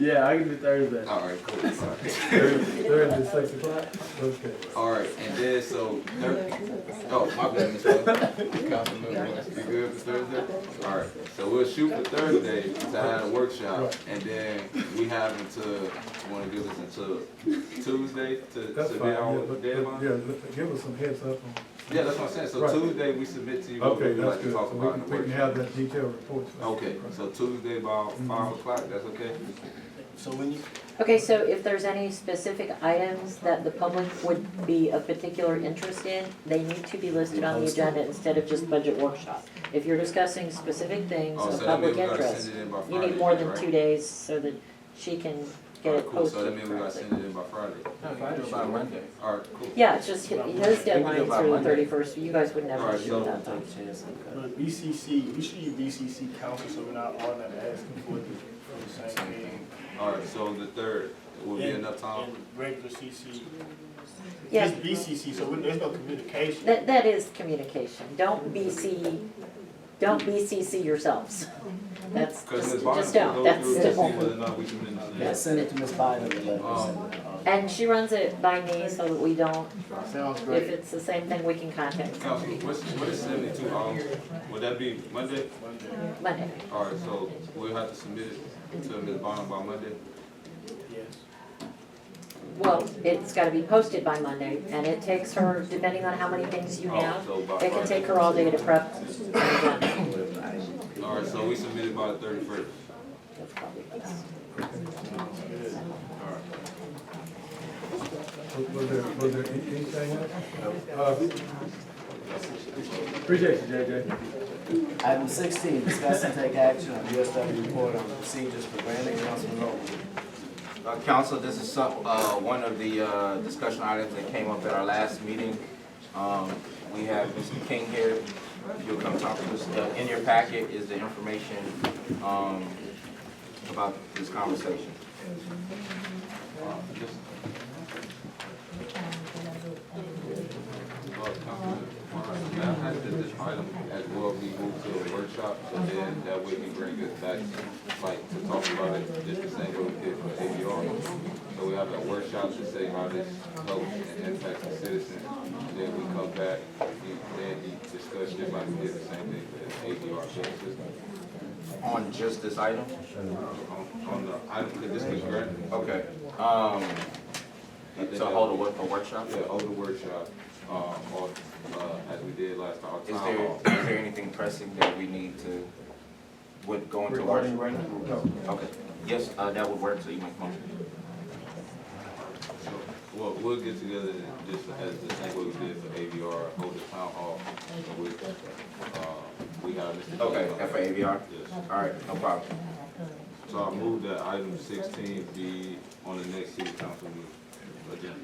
Yeah, I can do Thursday. All right, cool. All right. Thursday, six o'clock? Okay. All right, and then so Thursday. Oh, my bad, Miss Wells. Councilman Wells, you good for Thursday? All right, so we'll shoot for Thursday to have a workshop, and then we have until, want to give us until Tuesday to That's submit fine, yeah, our but, but, deadline? yeah, let- give us some heads up on. Yeah, that's what I'm saying, so Right. Tuesday we submit to you what Okay, we'd that's like good, to so talk we about in can, the we can have Mm-hmm. workshop. that detailed report. for- Okay, so Tuesday about five o'clock, that's okay? So when you, Okay, so if there's any specific items that the public would be of particular interest in, they need to be listed on the agenda instead of just budget workshop. If you're discussing specific things Oh, of so that means public we gotta interest, send it in by Friday, you right? need more than two days so that she can All get right, it cool, so that posted means we gotta correctly. send it in by Friday. no, you do it by Uh, Monday. All right, cool. Yeah, it's just, hi- his deadline is by through the Monday. thirty-first, you guys would never Alright, shoot so- that time. But BCC, we should use BCC council so we're not all that asking for the, for the same thing. All right, so the third will be enough time? And regular CC. Yeah, It's BCC, so we- there's no communication. that, that is communication, don't BC, don't BCC yourselves. That's, Because just, Ms. Bonner just can don't, go that's through it to just see whether or not we can Um, Yeah, understand. send it to Ms. Bynum and let her send it on. And she runs it by me so that we don't, Sounds if it's the same thing, we can contact Council, what's, what is seventy-two hours? Would that be Monday? Monday. All right, so we'll have to submit it to Ms. Bonner by Monday? Yes. Well, it's gotta be posted by Monday, and it takes her, depending on how many things you Oh, have, so by it can Friday. take her all day to prep. All right, so we submit it by the thirty-first. All right. Was was there, was there any- anything else? Uh, Appreciate you, JJ. Item sixteen, discuss and take action on USW report on procedures for granting Councilman Rowland. Uh, Council, this is some, uh, one of the, uh, discussion items that came up at our last meeting. Um, we have Mr. King here, if you'll come talk to us. Uh, In your packet is the information, um, about this conversation. Uh, just- Well, Councilman, Warren, may I ask that this item as well be moved to a workshop, so then that way we bring it back, like, to talk about it, just the same way we did for ABR. So we have a workshop to say how this helps and impacts the citizens, then we come back, we- then we discuss just like we did the same thing for ABR services. On just this item? On, on the item, could this be granted? Okay. Um, I think so that- hold a, wo- a workshop? Yeah, over the workshop, um, or, uh, as we did last time, our Is town there, hall. is there anything pressing that we need to, would go into workshop? Okay, yes, uh, that would work, so you make a motion. So, Well, we'll get together and just as the same way we did for AVR, hold the town hall, and we, uh, we have Mr. Okay, Taylor. and for AVR? Yes. All right, no problem. So I move that item sixteen be on the next city council meeting agenda.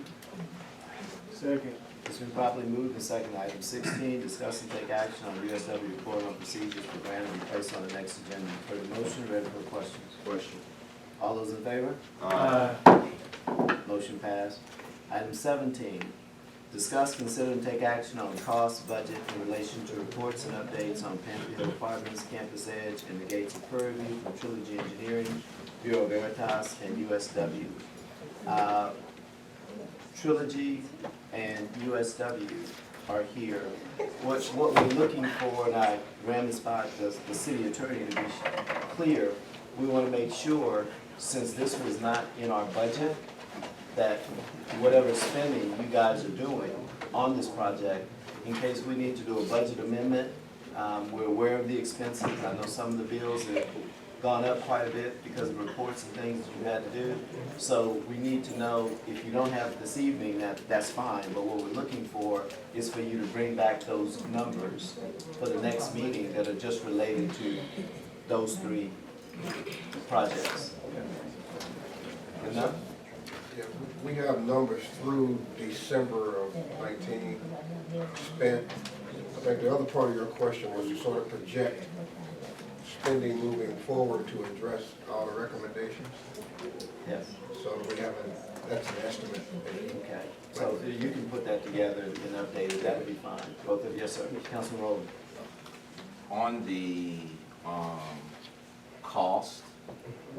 Second. It's been properly moved and seconded. Item sixteen, discuss and take action on USW report on procedures for granting and placed on the next agenda. For the motion, ready for questions? Question. All those in favor? Uh, Motion passed. Item seventeen, discuss, consider, and take action on cost budget in relation to reports and updates on Panther Hill Apartments, Campus Edge, and the Gates of Purview from Trilogy Engineering, Bureau of Veritas, and USW. Uh, Trilogy and USW are here. What, what we're looking for, and I ran this by the, the city attorney to be clear, we wanna make sure, since this was not in our budget, that whatever spending you guys are doing on this project, in case we need to do a budget amendment, um, we're aware of the expenses. I know some of the bills have gone up quite a bit because of reports and things that you had to do. So we need to know, if you don't have it this evening, that, that's fine, but what we're looking for is for you to bring back those numbers for the next meeting that are just related to those three projects. Enough? Yeah, we we have numbers through December of nineteen spent. I think the other part of your question was you sort of project spending moving forward to address all the recommendations. Yes. So we haven't, that's an estimate. Okay, so you can put that together and update it, that would be fine. Both of, yes, sir, Councilman Rowland. On the, um, cost,